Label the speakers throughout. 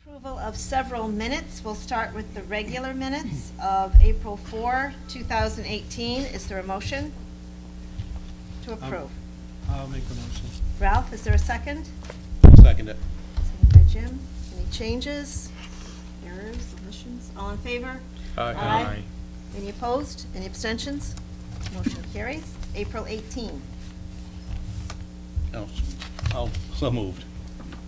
Speaker 1: Approval of several minutes. We'll start with the regular minutes of April 4, 2018. Is there a motion to approve?
Speaker 2: I'll make the motion.
Speaker 1: Ralph, is there a second?
Speaker 3: Second
Speaker 1: Second
Speaker 3: it.
Speaker 1: by Jim. Any changes, errors, omissions? All in favor? Aye. Any opposed? Any abstentions? Motion carries. April 18.
Speaker 3: Oh, I'll, so moved.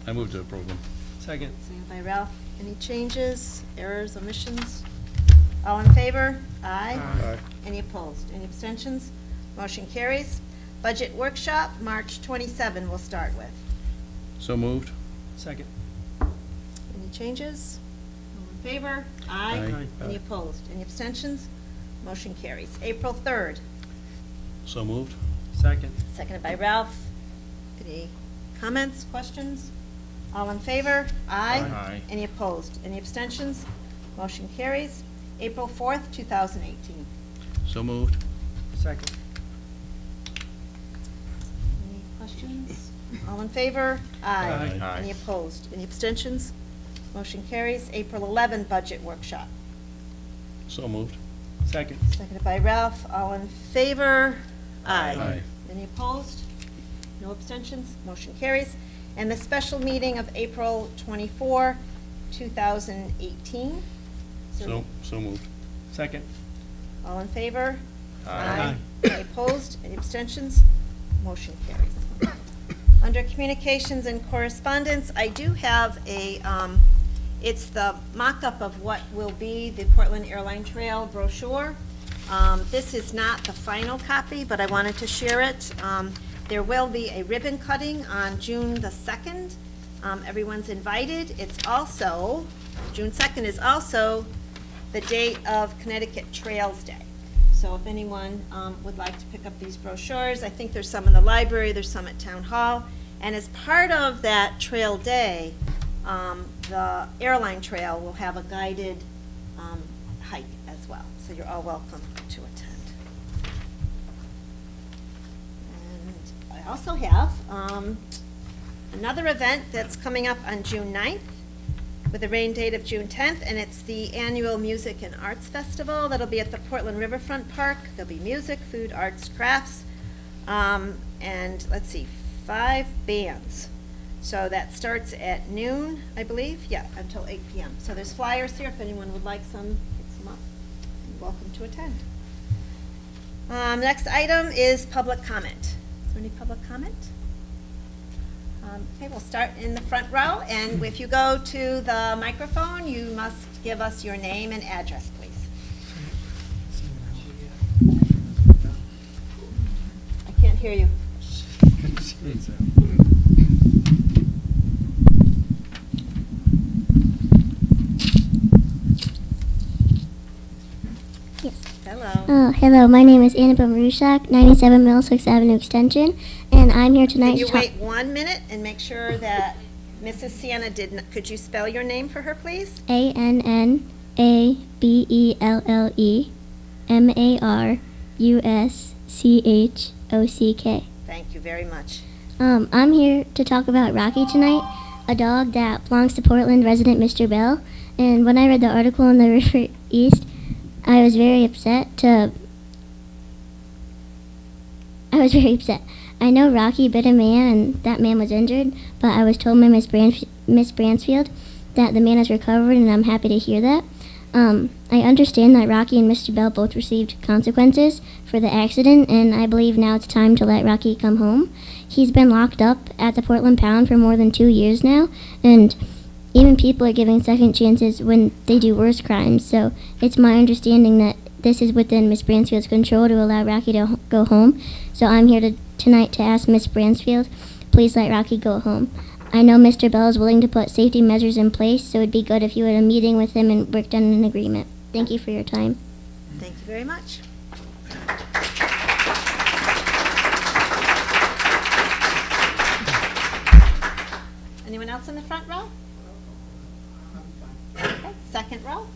Speaker 3: I moved to approve them.
Speaker 2: Second.
Speaker 1: Second by Ralph. Any changes, errors, omissions? All in favor?
Speaker 2: Aye.
Speaker 1: Any opposed? Any abstentions? Motion carries. Budget workshop, March 27, we'll start with.
Speaker 3: So moved?
Speaker 2: Second.
Speaker 1: Any changes? All in favor?
Speaker 3: Aye.
Speaker 2: Aye.
Speaker 1: Any opposed? Any abstentions? Motion carries. April 3rd,
Speaker 3: So moved?
Speaker 2: Second.
Speaker 1: seconded by Ralph. Any comments, questions? All in favor?
Speaker 3: Aye.
Speaker 1: Any opposed? Any abstentions? Motion carries. April 4th, 2018.
Speaker 3: So moved?
Speaker 2: Second.
Speaker 1: Any questions? All in favor?
Speaker 2: Aye.
Speaker 3: Aye.
Speaker 1: Any opposed? Any abstentions? Motion carries. April 11, Budget Workshop.
Speaker 3: So moved?
Speaker 2: Second.
Speaker 1: Seconded by Ralph. All in favor?
Speaker 3: Aye.
Speaker 1: Any opposed? No abstentions? Motion carries. And the special meeting of April 24, 2018. So-
Speaker 3: So, so moved?
Speaker 2: Second.
Speaker 1: All in favor?
Speaker 2: Aye.
Speaker 1: Any opposed? Any abstentions? Motion carries. Under communications and correspondence, I do have a, um, it's the mock-up of what will be the Portland Airline Trail brochure. Um, This is not the final copy, but I wanted to share it. Um, There will be a ribbon cutting on June the 2nd. Um, Everyone's invited. It's also, June 2nd is also the date of Connecticut Trails Day. So if anyone um, would like to pick up these brochures, I think there's some in the library, there's some at Town Hall. And as part of that Trail Day, um, the airline trail will have a guided um, hike as well. So you're all welcome to attend. And I also have um, another event that's coming up on June 9th with a rain date of June 10th, and it's the annual Music and Arts Festival that'll be at the Portland Riverfront Park. There'll be music, food, arts, crafts, um, and let's see, five bands. So that starts at noon, I believe, yeah, until 8 PM. So there's flyers here if anyone would like some, pick some up. You're Welcome to attend. Um, next item is public comment. Is there any public comment? Um, Okay, we'll start in the front row, and if you go to the microphone, you must give us your name and address, please. I can't hear you.
Speaker 2: uh,
Speaker 4: Yes.
Speaker 1: Hello.
Speaker 4: Oh, hello. My name is Annabelle Marushak, 97 Middlesex Avenue Extension, and I'm here tonight
Speaker 1: Can you
Speaker 4: to talk.
Speaker 1: wait one minute and make sure that Mrs. Sienna did, not could you spell your name for her, please?
Speaker 4: A N N A B E L L E M A R U S C H O C K.
Speaker 1: Thank you very much.
Speaker 4: Um, I'm here to talk about Rocky tonight, a dog that belongs to Portland resident Mr. Bell. And when I read the article in the River East, I was very upset to. I was very upset. I know Rocky bit a man and that man was injured, but I was told by Miss, Branf- Miss Bransfield that the man is recovered, and I'm happy to hear that. Um, I understand that Rocky and Mr. Bell both received consequences for the accident, and I believe now it's time to let Rocky come home. He's been locked up at the Portland Pound for more than two years now, and even people are giving second chances when they do worse crimes. So it's my understanding that this is within Miss Bransfield's control to allow Rocky to h- go home. So I'm here to, tonight to ask Miss Bransfield, please let Rocky go home. I know Mr. Bell is willing to put safety measures in place, so it'd be good if you had a meeting with him and worked on an agreement. Thank you for your time.
Speaker 1: Thank you very much. Anyone else in the front row? Okay, Second row?